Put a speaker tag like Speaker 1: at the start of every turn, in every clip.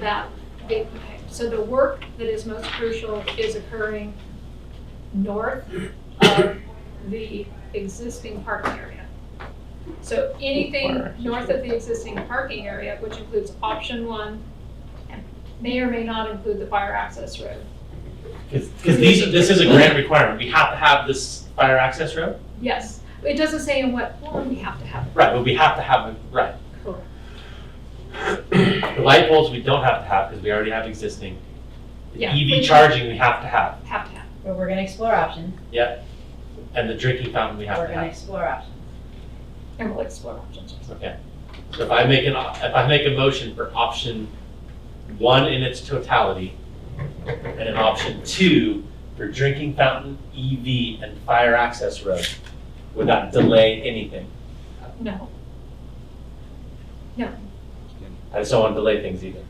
Speaker 1: that, it- so the work that is most crucial is occurring north of the existing parking area. So anything north of the existing parking area, which includes option one, and may or may not include the fire access road.
Speaker 2: Because these, this is a grant requirement, we have to have this fire access road,
Speaker 1: Yes, it doesn't say in what form we have to have it.
Speaker 2: right, but we have to have, a right. The light poles, we don't have to have, because we already have existing. The
Speaker 1: Yeah.
Speaker 2: EV charging, we have to have,
Speaker 1: Have to have. it.
Speaker 3: But we're gonna explore options.
Speaker 2: and the drinking fountain, we have
Speaker 3: We're
Speaker 2: to
Speaker 3: gonna
Speaker 2: have,
Speaker 3: explore options.
Speaker 1: And we'll explore options.
Speaker 2: okay. So if I make an, op- if I make a motion for option one in its totality, and an option two for drinking fountain, EV, and fire access road, would that delay anything?
Speaker 1: No,
Speaker 2: I just don't want to delay things either.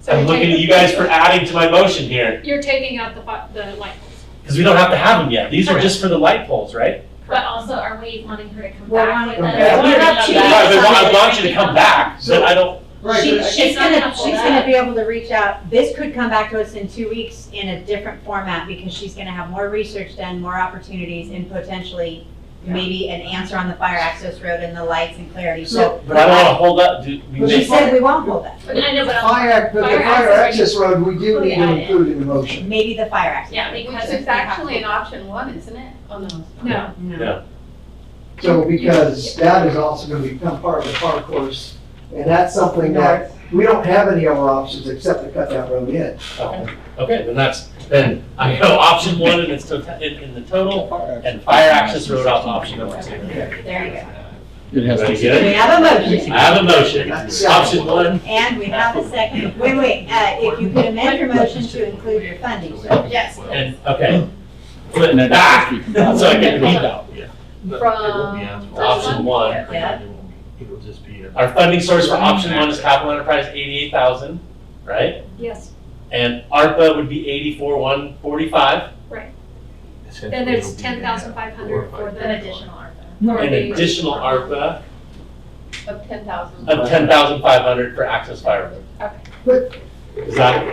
Speaker 1: So
Speaker 2: I'm
Speaker 1: you're
Speaker 2: looking at
Speaker 1: taking-
Speaker 2: you guys for adding to my motion here,
Speaker 1: you're taking out the, fi- the light poles.
Speaker 2: because we don't have to have them yet. These are just for the light poles, right?
Speaker 4: But also, are we wanting her to come
Speaker 3: We're
Speaker 4: back
Speaker 3: wanting-
Speaker 4: with us?
Speaker 3: Yeah, we're not cheating.
Speaker 2: Right, but I want you to come back, so I don't,
Speaker 5: Right,
Speaker 3: She-
Speaker 5: but I-
Speaker 3: She's
Speaker 4: It's not
Speaker 3: gonna,
Speaker 4: gonna hold
Speaker 3: she's gonna
Speaker 4: up.
Speaker 3: be able to reach out, this could come back to us in two weeks in a different format because she's gonna have more research done, more opportunities and potentially maybe an answer on the fire access road and the lights and clarity, so.
Speaker 5: So-
Speaker 2: but I don't want to hold up, do, we
Speaker 5: But
Speaker 3: She
Speaker 2: may,
Speaker 5: she's-
Speaker 3: said we won't hold that,
Speaker 4: I know, but I'll-
Speaker 5: Fire, act- but the
Speaker 4: Fire
Speaker 5: fire
Speaker 4: access
Speaker 5: access road, we do need to
Speaker 4: Include it.
Speaker 5: include in the motion.
Speaker 3: maybe the fire access.
Speaker 4: yeah,
Speaker 6: Which
Speaker 4: because
Speaker 6: is
Speaker 4: it's actually
Speaker 6: actually an option one, isn't it? Oh, no. it's not.
Speaker 1: No,
Speaker 2: No.
Speaker 5: So because that is also gonna become part of the park course, and that's something that, we don't have any other options except to cut that road in.
Speaker 2: Oh, okay, then that's, then I go option one in its total, in, in the total, and fire access road off option number two.
Speaker 3: There you go.
Speaker 7: It has
Speaker 2: Very
Speaker 7: to
Speaker 2: good.
Speaker 3: We have a motion
Speaker 2: I have a motion, option one,
Speaker 3: and we have a second. Wait, wait, uh, if you could amend your motion to include your funding, so.
Speaker 6: Yes,
Speaker 2: and, okay. Put
Speaker 7: And
Speaker 2: it
Speaker 7: then
Speaker 2: back,
Speaker 7: you can-
Speaker 2: so I get beat out.
Speaker 6: from.
Speaker 2: Option one,
Speaker 3: Yeah.
Speaker 8: It'll just be a.
Speaker 2: our funding source for option one is capital enterprise eighty-eight thousand, right?
Speaker 1: yes.
Speaker 2: And ARPA would be eighty-four, one forty-five,
Speaker 1: Then there's ten thousand five hundred for
Speaker 4: an
Speaker 1: the.
Speaker 4: additional ARPA.
Speaker 1: for
Speaker 2: an
Speaker 1: the-
Speaker 2: additional ARPA
Speaker 6: Of ten thousand.
Speaker 2: of ten thousand five hundred for access fire.
Speaker 5: But-
Speaker 2: Is that?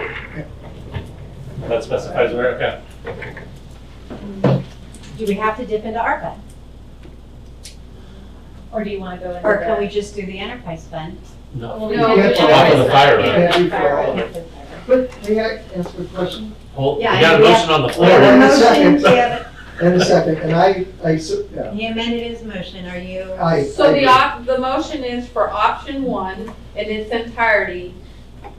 Speaker 2: That specifies where, okay.
Speaker 3: Do we have to dip into ARPA?
Speaker 4: Or do you want to go into
Speaker 3: Or can
Speaker 4: the?
Speaker 3: we just do the enterprise fund?
Speaker 2: No.
Speaker 4: No,
Speaker 5: We have to
Speaker 4: we-
Speaker 5: offer
Speaker 2: the fire road.
Speaker 4: Yeah, the
Speaker 5: Yeah,
Speaker 4: fire road.
Speaker 5: we- But may I ask a question?
Speaker 2: Hold, we
Speaker 3: Yeah,
Speaker 2: got a
Speaker 3: and we
Speaker 2: motion on the
Speaker 3: We
Speaker 2: floor.
Speaker 3: have a
Speaker 5: Wait,
Speaker 2: All
Speaker 5: wait a second.
Speaker 3: motion, we have
Speaker 5: And a second, and I, I, su-
Speaker 3: a-
Speaker 5: yeah,
Speaker 3: he amended his motion, are you?
Speaker 5: I.
Speaker 6: So the
Speaker 5: I-
Speaker 6: op, the motion is for option one in its entirety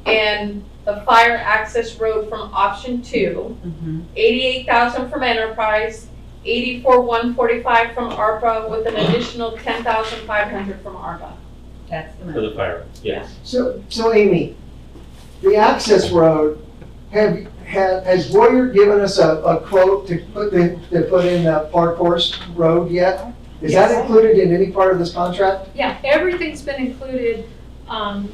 Speaker 6: and the fire access road from option two,
Speaker 3: Mhm.
Speaker 6: eighty-eight thousand from enterprise, eighty-four one forty-five from ARPA with an additional ten thousand five hundred from ARPA.
Speaker 3: That's the
Speaker 2: For
Speaker 3: motion.
Speaker 2: the fire, road, yes.
Speaker 5: So, so Amy, the access road, have, ha has Boyer given us a, a quote to put in, to put in the park course road yet? Is that
Speaker 1: Yes.
Speaker 5: included in any part of this contract?
Speaker 1: Yeah, everything's been included, um,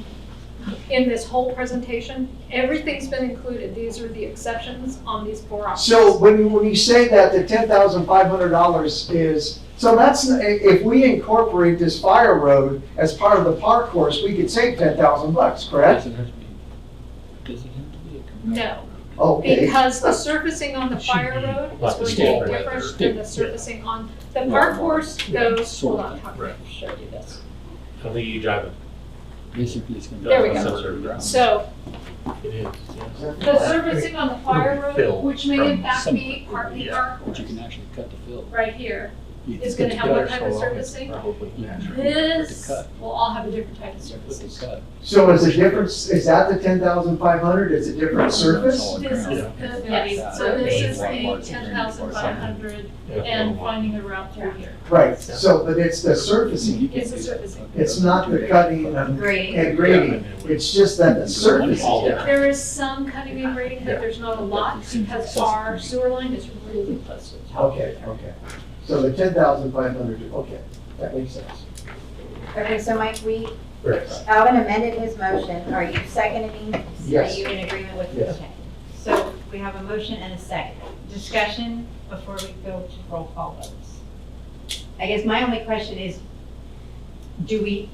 Speaker 1: in this whole presentation. Everything's been included. These are the exceptions on these four options.
Speaker 5: So when, you- when you say that the ten thousand five hundred dollars is, so that's, i- if we incorporate this fire road as part of the park course, we could save ten thousand bucks, correct?
Speaker 7: Does it have to be- does it have to be a commercial?
Speaker 1: No,
Speaker 5: Okay,
Speaker 1: because the surfacing on the fire
Speaker 7: Should be
Speaker 1: road
Speaker 2: like the
Speaker 1: is
Speaker 2: state
Speaker 1: going to
Speaker 2: road
Speaker 1: be
Speaker 7: or
Speaker 1: different
Speaker 7: state,
Speaker 1: than
Speaker 7: yeah.
Speaker 1: the surfacing on, the
Speaker 7: Well,
Speaker 1: park horse
Speaker 7: yeah,
Speaker 1: goes,
Speaker 7: sort
Speaker 1: hold
Speaker 7: of,
Speaker 1: on, how can I
Speaker 7: right.
Speaker 1: show you this?
Speaker 2: I don't think you drive it.
Speaker 7: Basically, it's gonna. be
Speaker 1: There we go.
Speaker 7: subsurface ground.
Speaker 1: So
Speaker 8: It is, yes.
Speaker 1: the surfacing on the fire road,
Speaker 8: Fill
Speaker 1: which may
Speaker 8: from
Speaker 1: in fact be
Speaker 7: somewhere.
Speaker 1: partly
Speaker 8: Yeah.
Speaker 1: park
Speaker 7: But you
Speaker 1: horse,
Speaker 7: can actually cut the fill.
Speaker 1: right here,
Speaker 7: You
Speaker 1: is
Speaker 7: can
Speaker 1: gonna
Speaker 7: cut
Speaker 1: have
Speaker 7: the
Speaker 1: one
Speaker 7: cut.
Speaker 1: kind of surfacing.
Speaker 8: Probably natural.
Speaker 1: This
Speaker 7: cut.
Speaker 1: will all have a different type of
Speaker 7: With the
Speaker 1: surfacing.
Speaker 7: cut.
Speaker 5: so is the difference, is that the ten thousand five hundred, is it different surface?
Speaker 7: It's all
Speaker 1: This is
Speaker 7: ground.
Speaker 1: the, yes, so this is the ten thousand five hundred
Speaker 8: Yeah.
Speaker 1: and finding a route through here.
Speaker 5: Right, so, but it's the surfacing,
Speaker 7: You can
Speaker 1: It's a
Speaker 7: do-
Speaker 1: surfacing.
Speaker 5: it's not the cutting and
Speaker 3: Great.
Speaker 5: and grading, it's just that the surface is different.
Speaker 1: There is some cutting and grading, but there's not a lot because our sewer line is really close to the top.
Speaker 5: Okay, okay. So the ten thousand five hundred, okay, that makes sense.
Speaker 3: Okay, so Mike, we,
Speaker 5: Right.
Speaker 3: Alvin amended his motion, are you seconding?
Speaker 5: Yes.
Speaker 3: Are you in agreement with this?
Speaker 5: Yes.
Speaker 3: Okay. So we have a motion and a second. Discussion before we go to roll call votes. I guess my only question is, do we